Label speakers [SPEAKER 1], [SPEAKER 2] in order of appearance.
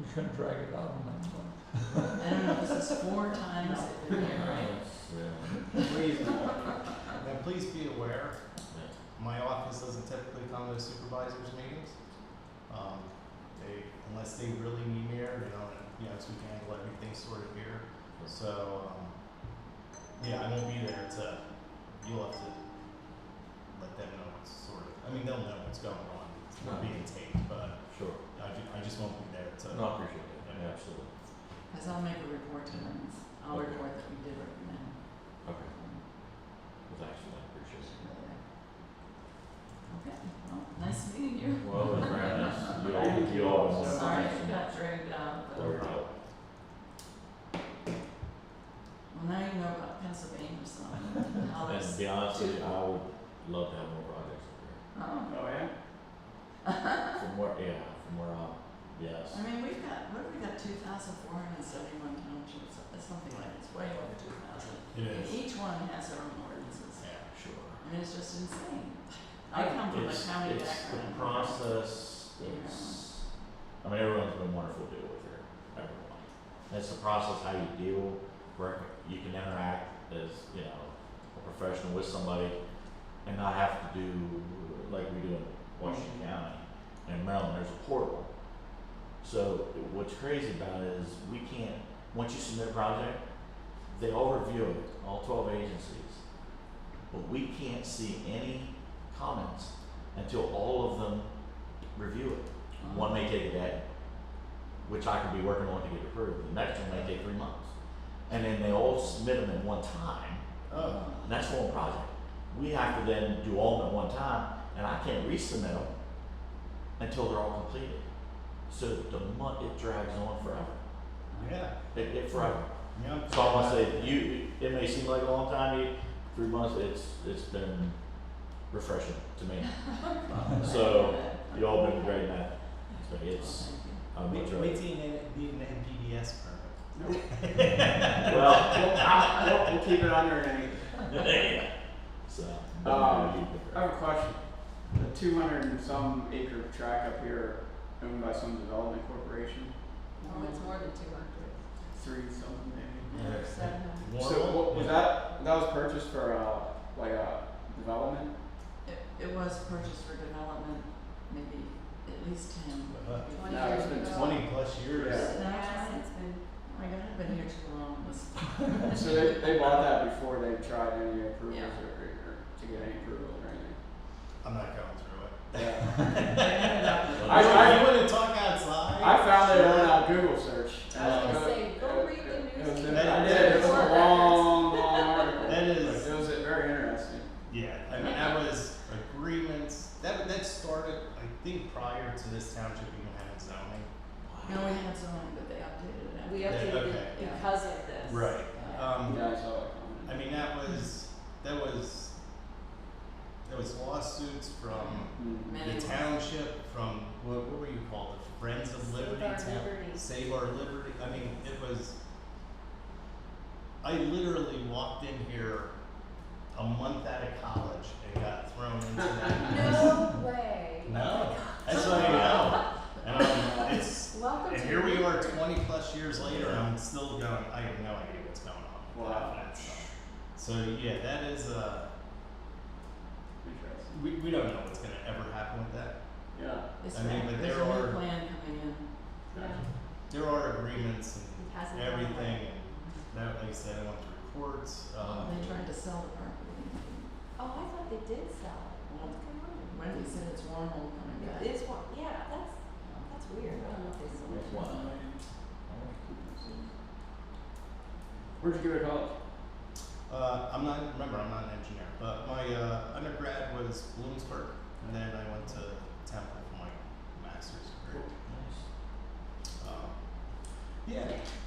[SPEAKER 1] we couldn't drag it out on that one.
[SPEAKER 2] I don't know, this is four times a year, right?
[SPEAKER 3] Please, now please be aware, my office doesn't typically come to supervisors meetings. Um, they, unless they really need me here, they don't, you know, so we can handle everything sort of here. So, um, yeah, I won't be there to, you'll have to let them know what's sort of, I mean, they'll know what's going on. It's not being taped, but
[SPEAKER 4] Sure,
[SPEAKER 3] I ju- I just won't be there to.
[SPEAKER 4] no, I appreciate that, Yeah, absolutely,
[SPEAKER 2] Cause I'll make a report to them, I'll
[SPEAKER 4] Okay.
[SPEAKER 2] report that we did recommend.
[SPEAKER 4] okay, well, thanks for that, appreciate it.
[SPEAKER 2] Okay, well, nice meeting you.
[SPEAKER 4] Well, it's very nice, you all, you all.
[SPEAKER 2] Sorry it got dragged out, but,
[SPEAKER 4] There we
[SPEAKER 2] well,
[SPEAKER 4] go.
[SPEAKER 2] now you know about Pennsylvania, so, and how
[SPEAKER 4] And to
[SPEAKER 2] it's,
[SPEAKER 4] be honest with you, I would love to have more projects up
[SPEAKER 2] um,
[SPEAKER 3] Oh, yeah?
[SPEAKER 4] here. From where, yeah, from where I'm, yes.
[SPEAKER 2] I mean, we've got, what have we got, two thousand four hundred and seventy-one townships, uh, something like, it's way over two thousand.
[SPEAKER 3] It is,
[SPEAKER 2] Each one has their own ordinances,
[SPEAKER 3] yeah.
[SPEAKER 4] Sure.
[SPEAKER 2] I mean, it's just insane. I come from a
[SPEAKER 4] It's-
[SPEAKER 2] county background.
[SPEAKER 4] It's the process, it's, I mean, everyone's been wonderful to deal with here, everyone. That's the process, how you deal, where you can interact as, you know, a professional with somebody and not have to do like we do in Washington County. In Maryland, there's a portal. So what's crazy about it is we can't, once you submit a project, they all review it, all twelve agencies. But we can't see any comments until all of them review it.
[SPEAKER 2] Uh-huh.
[SPEAKER 4] One may take a day, which I could be working on to get approved. The next one may take three months. And then they all submit them in one time,
[SPEAKER 3] Oh,
[SPEAKER 4] and that's one project. We have to then do all of them at one time, and I can't resubmit them until they're all completed. So the month, it drags on forever.
[SPEAKER 3] yeah,
[SPEAKER 4] It, it forever.
[SPEAKER 3] yeah.
[SPEAKER 4] So I want to say, you, it may seem like a long time, you, three months, it's, it's been refreshing to me. So, You all been great, Matt. So it's, I'm
[SPEAKER 3] Wait,
[SPEAKER 4] enjoying
[SPEAKER 3] wait
[SPEAKER 4] it.
[SPEAKER 3] till you need, need an NPDS permit.
[SPEAKER 4] Well,
[SPEAKER 5] Well, I, I don't, we'll keep it under an eight.
[SPEAKER 4] yeah. So, but
[SPEAKER 5] Um,
[SPEAKER 4] you
[SPEAKER 5] I
[SPEAKER 4] prefer.
[SPEAKER 5] have a question. The two hundred and some acre tract up here owned by some development corporation,
[SPEAKER 2] Oh, it's more than two hundred.
[SPEAKER 5] three something maybe.
[SPEAKER 4] Yeah.
[SPEAKER 2] Seven.
[SPEAKER 5] So what, was that, that was purchased for, uh, like a development?
[SPEAKER 2] It, it was purchased for development, maybe at least ten.
[SPEAKER 3] Uh,
[SPEAKER 2] Twenty
[SPEAKER 5] No, it's been twenty.
[SPEAKER 3] Twenty plus years.
[SPEAKER 5] Yeah.
[SPEAKER 2] it's been. My God, I've been here too long, this.
[SPEAKER 5] So they, they bought that before they tried any approvals
[SPEAKER 2] Yeah.
[SPEAKER 5] or, or to get any approvals or anything.
[SPEAKER 3] I'm not going through it.
[SPEAKER 5] Yeah.
[SPEAKER 3] I, I wouldn't talk outside.
[SPEAKER 5] I found it on a Google search.
[SPEAKER 6] I was gonna
[SPEAKER 5] Uh,
[SPEAKER 6] say, go
[SPEAKER 5] it-
[SPEAKER 6] read the
[SPEAKER 5] it- it was in-
[SPEAKER 6] newspaper.
[SPEAKER 5] I did, it was a long, long article.
[SPEAKER 3] That is-
[SPEAKER 5] It was very interesting.
[SPEAKER 3] Yeah, I mean that was agreements. That that started, I think, prior to this township even having zoning.
[SPEAKER 2] No, we had someone, but they updated it. uh, after.
[SPEAKER 6] We
[SPEAKER 3] Yeah,
[SPEAKER 6] updated
[SPEAKER 3] okay.
[SPEAKER 6] it because of this.
[SPEAKER 3] Um,
[SPEAKER 5] Yeah, I saw that comment.
[SPEAKER 3] I mean that was that was there was lawsuits from
[SPEAKER 5] Mm.
[SPEAKER 2] Many
[SPEAKER 3] the
[SPEAKER 2] ones.
[SPEAKER 3] township, from what, what were you called, the Friends of Liberty?
[SPEAKER 6] Save our
[SPEAKER 3] Town-
[SPEAKER 6] liberty.
[SPEAKER 3] Save Our Liberty. I mean, it was. I literally walked in here a month out of college and got thrown into that.
[SPEAKER 6] No way.
[SPEAKER 3] No, that's what I know. And I'm, it's,
[SPEAKER 6] Welcome
[SPEAKER 3] and
[SPEAKER 6] to.
[SPEAKER 3] here we are
[SPEAKER 6] Newburgh.
[SPEAKER 3] twenty plus years later, and I'm still going, I have no idea what's going on. with
[SPEAKER 5] Wow.
[SPEAKER 3] that stuff. So, yeah, that is, uh,
[SPEAKER 5] Interesting.
[SPEAKER 3] we, we don't know what's gonna ever happen with that.
[SPEAKER 5] Yeah.
[SPEAKER 2] It's
[SPEAKER 3] Uh, I mean,
[SPEAKER 2] right,
[SPEAKER 3] but
[SPEAKER 2] there's
[SPEAKER 3] there
[SPEAKER 2] a
[SPEAKER 3] are-
[SPEAKER 2] new plan coming in.
[SPEAKER 6] Yeah.
[SPEAKER 3] There are agreements
[SPEAKER 6] It hasn't
[SPEAKER 3] and
[SPEAKER 6] gone
[SPEAKER 3] everything,
[SPEAKER 6] away.
[SPEAKER 3] and that, like I said, I went to reports, um,
[SPEAKER 2] They tried to sell the property.
[SPEAKER 6] Oh, I thought they did sell it. What's going
[SPEAKER 2] When we said it's warm, coming
[SPEAKER 6] on?
[SPEAKER 2] back.
[SPEAKER 6] It is one, yeah, that's, that's weird. I don't know if they sold it.
[SPEAKER 4] Wow.
[SPEAKER 5] Where'd you go to college?
[SPEAKER 3] Uh, I'm not, remember, I'm not an engineer, but my uh, undergrad was Bloomsburg, and then I went to Temple for my master's degree.
[SPEAKER 4] Nice.
[SPEAKER 3] Um, yeah, Uh,
[SPEAKER 4] Uh,